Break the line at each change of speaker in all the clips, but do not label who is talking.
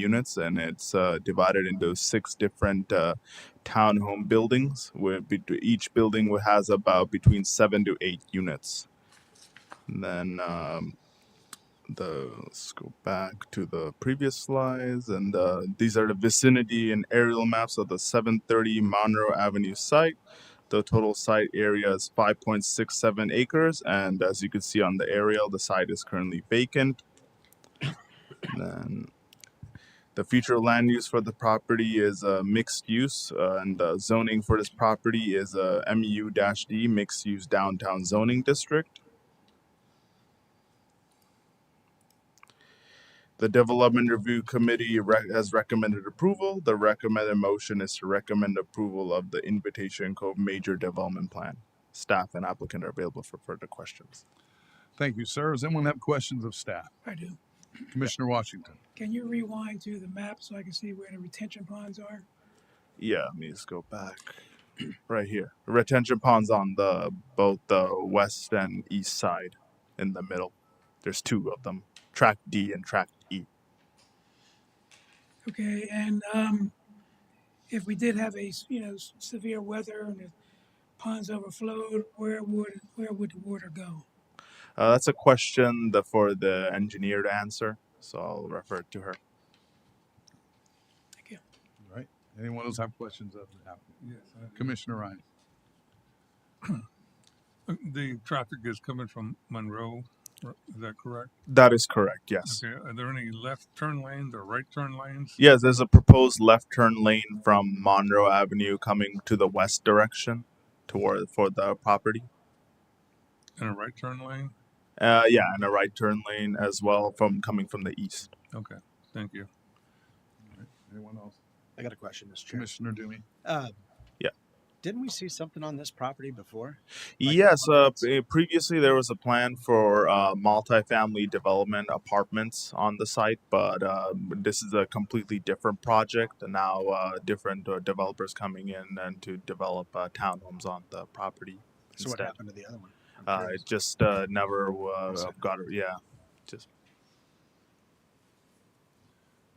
units and it's uh, divided into six different uh, townhome buildings where bet- each building will- has about between seven to eight units and then um, the let's go back to the previous slides and uh, these are the vicinity and aerial maps of the 730 monroe avenue site the total site area is 5.67 acres and as you can see on the aerial the site is currently vacant and then The future land use for the property is uh, mixed use, uh, and the zoning for this property is uh, MU-D mixed use downtown zoning district. The development review committee re- has recommended approval. The recommended motion is to recommend approval of the Invitation Cove major development plan. Staff and applicant are available for further questions.
Thank you, sir. Does anyone have questions of staff?
I do.
Commissioner Washington.
Can you rewind to the map so I can see where the retention ponds are?
Yeah, let me just go back right here. Retention ponds on the both the west and east side, in the middle. There's two of them, track D and track E.
Okay, and um, if we did have a, s- you know, s- severe weather and the ponds overflowed, where would, where would the water go?
Uh, that's a question that for the engineer to answer, so I'll refer to her.
Thank you.
All Right. Anyone else have questions of the applicant? Yes. Commissioner Ryan.
The traffic is coming from Monroe, r- is that correct?
That is correct. Yes.
Okay, are there any left turn lanes or right turn lanes?
Yes, there's a proposed left turn lane from Monroe Avenue coming to the west direction, toward for the property.
And a right turn lane?
Uh, yeah, and a right turn lane as well from coming from the east.
Okay, thank you.
Anyone else?
I got a question, Mr. Chair.
Commissioner Dumey.
Uh,
Yeah.
Didn't we see something on this property before? Like
Yes, uh,
apartments?
pre- previously there was a plan for uh, multifamily development apartments on the site, but uh, this is a completely different project. And now uh, different uh, developers coming in and to develop uh, townhomes on the property
So what
instead.
happened to the other one? I'm
Uh,
curious.
it just uh, never uh,
Was it-
got, yeah, just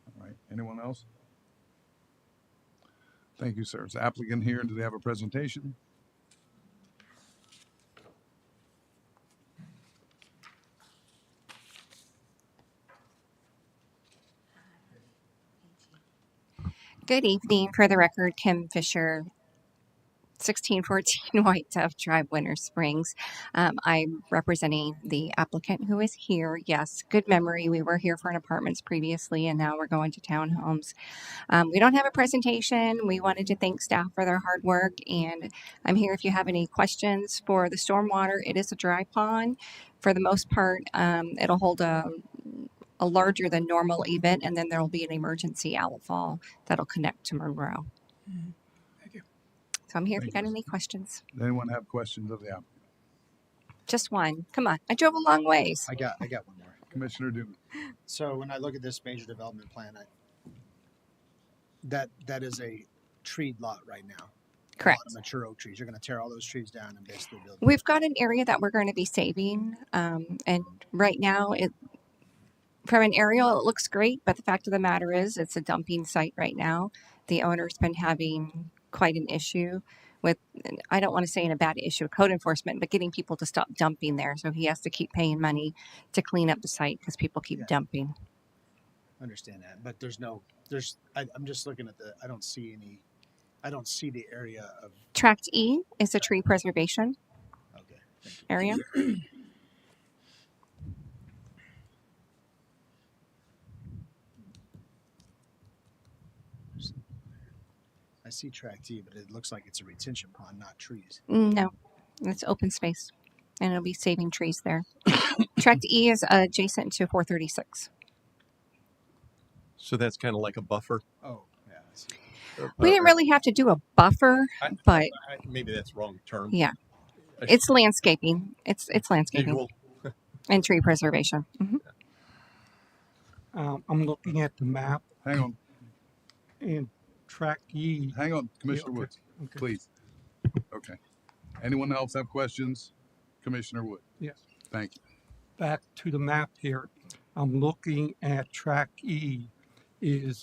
All right. Anyone else? Thank you, sir. Is the applicant here? Do they have a presentation?
Good evening. For the record, Kim Fisher, 1614 White Dove Drive, Winter Springs. Um, I'm representing the applicant who is here. Yes, good memory. We were here for an apartments previously, and now we're going to townhomes. Um, we don't have a presentation. We wanted to thank staff for their hard work, and I'm here if you have any questions for the stormwater. It is a dry pond. For the most part, um, it'll hold a a larger than normal event, and then there will be an emergency outfall that'll connect to Monroe.
Mhm. Thank you.
So I'm here if you
Thank
got
you.
any questions.
Does anyone have questions of the applicant?
Just one. Come on. I drove a long ways.
I got, I got one more.
Commissioner Dumey.
So when I look at this major development plan, I, that, that is a treed lot right now. A lot
Correct.
of mature oak trees. You're gonna tear all those trees down and basically build. new.
We've got an area that we're going to be saving. Um, and right now, it, from an aerial, it looks great. But the fact of the matter is, it's a dumping site right now. The owner's been having quite an issue with, and I don't want to say in a bad issue, code enforcement, but getting people to stop dumping there. So he has to keep paying money to clean up the site because people keep
Yeah.
dumping.
Understand that, but there's no, there's, I, I'm just looking at the, I don't see any, I don't see the area of,
Tract E is a tree preservation
okay.
area.
I see track T, but it looks like it's a retention pond, not trees.
No, it's open space, and it'll be saving trees there. Tract E is adjacent to 436.
So that's kind of like a buffer.
Oh, yeah, I see.
We didn't really have to do a buffer,
I-
but
uh, I- maybe that's wrong term.
Yeah. it's landscaping. It's it's landscaping
Equal.
and tree preservation. Mhm.
Um, I'm looking at the map
Hang on,
and track E.
hang on, Commissioner
okay,
Woods,
okay.
please. Okay. Anyone else have questions? Commissioner Wood.
Yes.
Thank you.
Back to the map here. I'm looking at track E. is